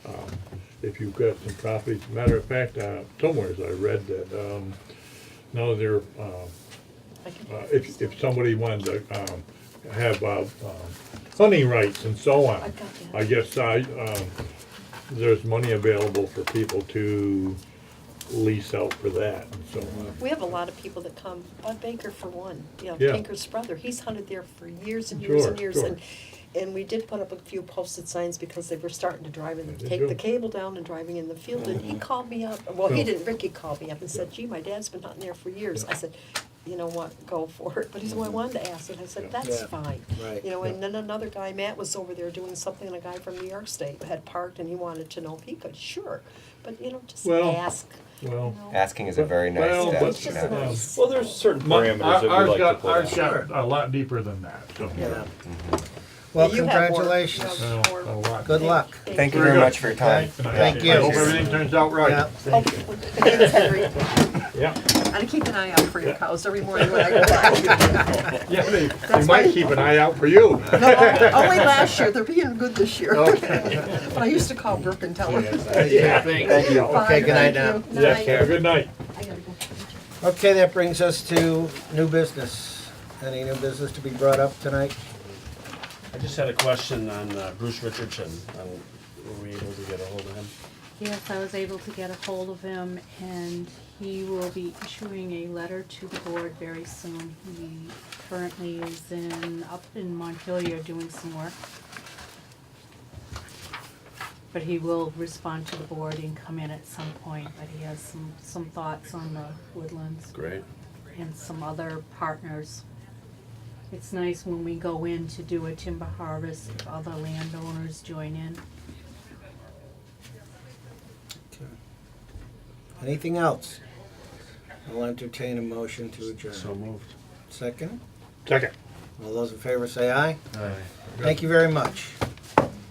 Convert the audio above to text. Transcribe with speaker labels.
Speaker 1: Um, if you've got some copies. Matter of fact, uh, somewhere I read that, um, no, they're, uh, uh, if, if somebody wanted to, um, have, uh, um, hunting rights and so on.
Speaker 2: I've got that.
Speaker 1: I guess I, um, there's money available for people to lease out for that and so on.
Speaker 2: We have a lot of people that come, Bud Baker for one, you know,
Speaker 1: Yeah.
Speaker 2: Baker's brother, he's hunted there for years and years and
Speaker 1: Sure,
Speaker 2: years
Speaker 1: sure.
Speaker 2: and, and we did put up a few posted signs because they were starting to drive and
Speaker 1: They
Speaker 2: take the
Speaker 1: do. Mm-hmm.
Speaker 2: cable down and driving in the field and he called me up, well, he
Speaker 1: Yeah.
Speaker 2: didn't, Ricky called me up and said, gee, my dad's been hunting there for years. I said, you know what, go for it, but he said, well, I wanted to ask and I said,
Speaker 1: Mm-hmm. Yeah.
Speaker 2: that's
Speaker 3: Yeah.
Speaker 2: fine.
Speaker 3: Right.
Speaker 2: You know, and then another guy, Matt, was over there doing something and a guy from New York State had parked and he wanted to know if he could, sure, but you know, just
Speaker 1: Well,
Speaker 2: ask. you
Speaker 1: well,
Speaker 2: know.
Speaker 4: Asking is a very nice
Speaker 1: Well,
Speaker 4: step.
Speaker 1: but,
Speaker 4: you
Speaker 2: It's just
Speaker 4: know.
Speaker 1: um,
Speaker 2: nice.
Speaker 5: Well, there's certain
Speaker 1: My-
Speaker 5: parameters
Speaker 1: our-
Speaker 5: that we
Speaker 1: ours
Speaker 5: like
Speaker 1: got-
Speaker 5: to pull
Speaker 1: Ours
Speaker 5: out.
Speaker 1: got a lot deeper than that, so.
Speaker 2: Yeah.
Speaker 3: Well,
Speaker 2: You have more,
Speaker 3: congratulations.
Speaker 2: you have
Speaker 1: Well,
Speaker 2: more.
Speaker 1: a lot.
Speaker 3: Good luck.
Speaker 4: Thank you very much for your time.
Speaker 3: Okay.
Speaker 1: And I-
Speaker 3: Thank you.
Speaker 1: I hope everything turns out
Speaker 3: Yeah.
Speaker 1: right.
Speaker 2: Oh, thanks, Henry.
Speaker 1: Yeah,
Speaker 2: I keep an eye out for your cows every morning when I go by.
Speaker 1: yeah, they, they might keep an eye out for you.
Speaker 2: No, Only last year, they're being good this year.
Speaker 3: Oh.
Speaker 2: But I used to call Brooke and tell her.
Speaker 3: Yeah.
Speaker 4: Thank you.
Speaker 3: Okay, good night now.
Speaker 1: Yeah, have a good night.
Speaker 3: Okay, that brings us to new business. Any new business to be brought up tonight?
Speaker 6: I just had a question on uh, Bruce Richardson. Um, Were we able to get a hold of him?
Speaker 7: Yes, I was able to get a hold of him and he will be issuing a letter to the board very soon. He currently is in, up in Montpelier doing some work. But he will respond to the board and come in at some point, but he has some, some thoughts on the woodlands
Speaker 6: Great.
Speaker 7: and some other partners. It's nice when we go in to do a timber harvest, if other landowners join in.
Speaker 3: Anything else? I'll entertain a motion to
Speaker 6: So
Speaker 3: adjourn.
Speaker 6: moved.
Speaker 3: Second?
Speaker 1: Second.
Speaker 3: All those in favor say aye. Thank you very much.